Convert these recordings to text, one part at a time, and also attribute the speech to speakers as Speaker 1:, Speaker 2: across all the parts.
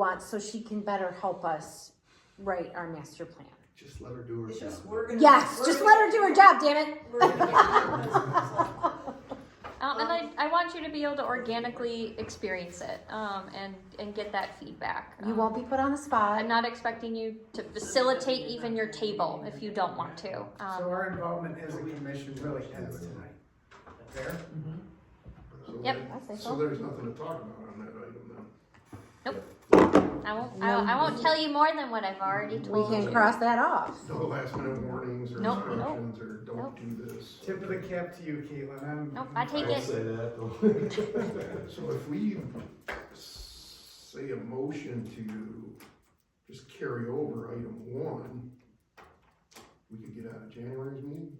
Speaker 1: wants, so she can better help us write our master plan.
Speaker 2: Just let her do her
Speaker 3: It's
Speaker 2: job.
Speaker 3: just, we're gonna.
Speaker 1: Yes,
Speaker 3: we're
Speaker 1: just
Speaker 3: gonna-
Speaker 1: let her do her job, damn it.
Speaker 3: we're gonna get-
Speaker 4: Um, and I, I want you to be able to organically experience it um, and, and get that feedback.
Speaker 1: You
Speaker 4: Um,
Speaker 1: won't be put on the
Speaker 4: I'm
Speaker 1: spot.
Speaker 4: not expecting you to facilitate even your table if you don't want to.
Speaker 5: So
Speaker 4: Um,
Speaker 5: our involvement as a commission really ends tonight. Fair?
Speaker 2: So
Speaker 4: Yep.
Speaker 2: there-
Speaker 1: I say
Speaker 2: So
Speaker 1: so.
Speaker 2: there's nothing to talk about on that item now.
Speaker 4: I won't, I, I won't tell you more than what I've already
Speaker 1: We
Speaker 4: told you.
Speaker 1: can cross that off.
Speaker 2: No last minute warnings or
Speaker 4: Nope, nope,
Speaker 2: instructions or
Speaker 4: nope.
Speaker 2: don't do this.
Speaker 5: Tip of the cap to you, Caitlin. I'm.
Speaker 4: Nope, I take it.
Speaker 6: say that though.
Speaker 2: So if we say a motion to just carry over item one, we could get out of January's meeting?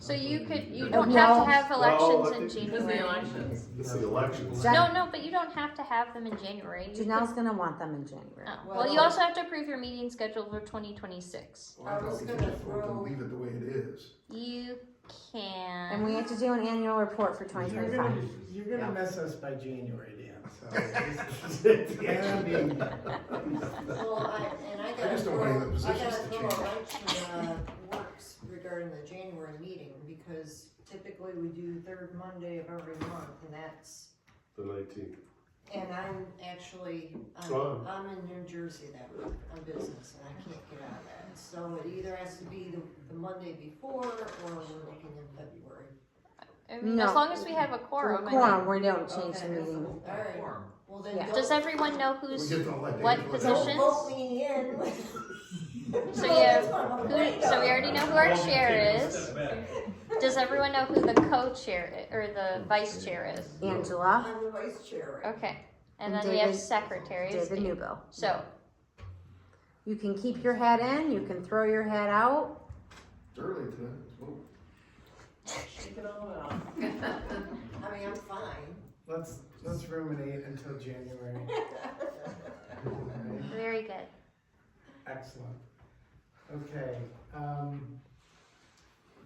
Speaker 4: So you could, you
Speaker 1: Oh,
Speaker 4: don't
Speaker 1: no.
Speaker 4: have to have
Speaker 6: Well,
Speaker 4: elections
Speaker 6: I
Speaker 4: in
Speaker 6: think-
Speaker 4: January.
Speaker 3: elections.
Speaker 6: It's the elections.
Speaker 1: Jack-
Speaker 4: No, no, but you don't have to have them in January. You could-
Speaker 1: Janelle's gonna want them in January.
Speaker 4: Oh, Well, you also have to approve your meeting schedule for twenty twenty-six.
Speaker 2: Well, Oh, I
Speaker 3: I was
Speaker 2: thought we could
Speaker 3: gonna
Speaker 2: just vote to
Speaker 3: throw-
Speaker 2: leave it the way it is.
Speaker 4: You can.
Speaker 1: And we have to do an annual report for twenty
Speaker 5: You're gonna,
Speaker 1: twenty-five.
Speaker 5: you're gonna miss us by January, Dan, so. this is-
Speaker 2: I
Speaker 5: gonna be-
Speaker 3: Well, I, and I
Speaker 2: I
Speaker 3: gotta
Speaker 2: just don't
Speaker 3: throw,
Speaker 2: want
Speaker 3: I
Speaker 2: any of the
Speaker 3: gotta
Speaker 2: positions to
Speaker 3: throw a
Speaker 2: change.
Speaker 3: wrench in, uh, works regarding the January meeting, because typically we do third Monday of every month, and that's,
Speaker 6: The nineteenth.
Speaker 3: and I'm actually,
Speaker 6: Oh.
Speaker 3: I'm, I'm in New Jersey that month on business, and I can't get out of that. So it either has to be the, the Monday before, or we're looking in February.
Speaker 4: I mean,
Speaker 1: No.
Speaker 4: as long as we have a quorum. I
Speaker 1: Quorum, we don't change the
Speaker 3: Okay.
Speaker 1: meeting.
Speaker 3: Alright, well then
Speaker 1: Yeah.
Speaker 4: mean,
Speaker 3: don't.
Speaker 4: Does everyone know
Speaker 2: We
Speaker 4: who's
Speaker 2: get to elect
Speaker 4: what
Speaker 2: Angela.
Speaker 3: Don't
Speaker 4: positions?
Speaker 3: vote me in.
Speaker 4: So you have- who, so we already know who our chair is. Does everyone know who the co-chair i- or the vice chair is?
Speaker 1: Angela,
Speaker 3: I'm the vice chair. right?
Speaker 4: Okay,
Speaker 1: And
Speaker 4: and then we have
Speaker 1: David-
Speaker 4: secretaries.
Speaker 1: David Newbill.
Speaker 4: So
Speaker 1: You can keep your head in, you can throw your head out.
Speaker 2: It's early today, let's vote.
Speaker 5: Shake it all out.
Speaker 3: I mean, I'm fine.
Speaker 5: Let's, let's ruminate until January. Alright.
Speaker 4: very good.
Speaker 5: Excellent. Okay, um,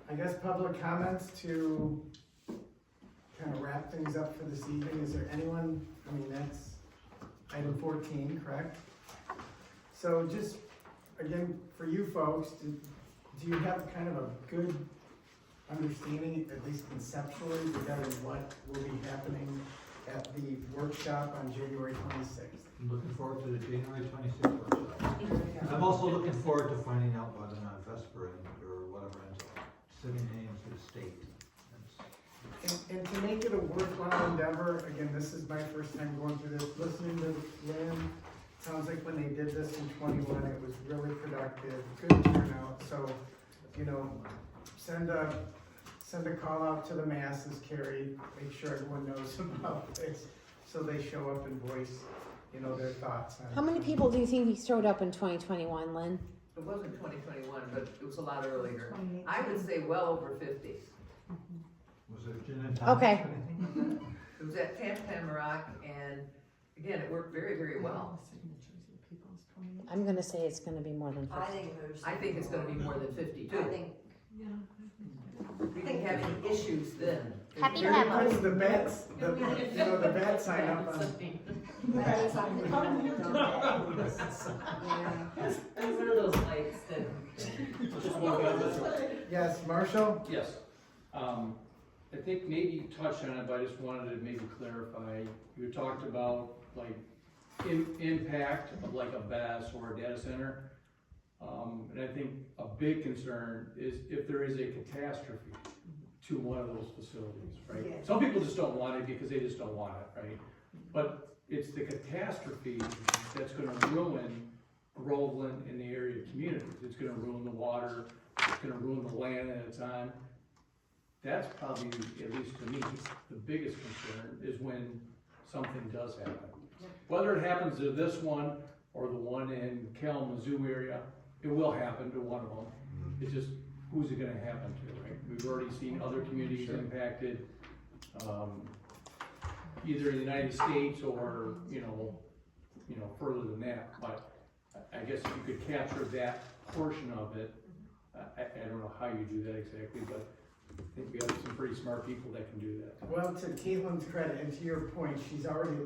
Speaker 5: I guess public comments to kind of wrap things up for this evening. Is there anyone, I mean, that's item fourteen, correct? So just, again, for you folks, do, do you have kind of a good understanding, at least conceptually, regarding what will be happening at the workshop on January twenty-sixth?
Speaker 7: I'm looking forward to the January twenty-sixth workshop.
Speaker 3: Yeah.
Speaker 7: I'm also looking forward to finding out whether or not Vesper and- or whatever ends up sending names to the state. That's-
Speaker 5: And, and to make it a worthwhile endeavor, again, this is my first time going through this, listening to Lynn, sounds like when they did this in twenty-one, it was really productive, good turnout, so, you know, send a, send a call out to the masses, Carrie, make sure everyone knows about this, so they show up and voice, you know, their thoughts on it.
Speaker 1: How many people do you think he showed up in twenty twenty-one, Lynn?
Speaker 8: It wasn't twenty twenty-one, but it was a lot earlier. I would say well over fifty.
Speaker 7: Was it Jen and Thomas?
Speaker 1: Okay.
Speaker 7: I think?
Speaker 8: It was at Tam Rock, and again, it worked very, very well.
Speaker 1: I'm gonna say it's gonna be more than
Speaker 3: I
Speaker 1: fifty.
Speaker 3: think there's.
Speaker 8: I think it's gonna be more than fifty
Speaker 3: I
Speaker 8: too.
Speaker 3: think,
Speaker 8: We didn't have any issues then.
Speaker 4: Happy to
Speaker 5: There
Speaker 4: have
Speaker 5: was
Speaker 4: us.
Speaker 5: the bats, the, you know, the bat sign up on,
Speaker 3: that's something. Yeah.
Speaker 9: And what are those lights that?
Speaker 10: Just one comment.
Speaker 5: yes, Marshall?
Speaker 10: Yes. Um, I think maybe you touched on it, but I just wanted to maybe clarify. You talked about like im- impact of like a BAS or a data center. Um, and I think a big concern is if there is a catastrophe to one of those facilities,
Speaker 3: Yeah.
Speaker 10: right? Some people just don't want it because they just don't want it, right? But it's the catastrophe that's gonna ruin Groveland and the area communities. It's gonna ruin the water, it's gonna ruin the land that it's on. That's probably, at least to me, the biggest concern is when something does happen. Whether it happens to this one or the one in Kalamazoo area, it will happen to one of them. It's just, who's it gonna happen to, right? We've already seen other communities impacted, um, either in the United States or, you know, you know, further than that, but I- I guess if you could capture that portion of it, I, I I don't know how you do that exactly, but I think we have some pretty smart people that can do that.
Speaker 5: Well, to Caitlin's credit and to your point, she's already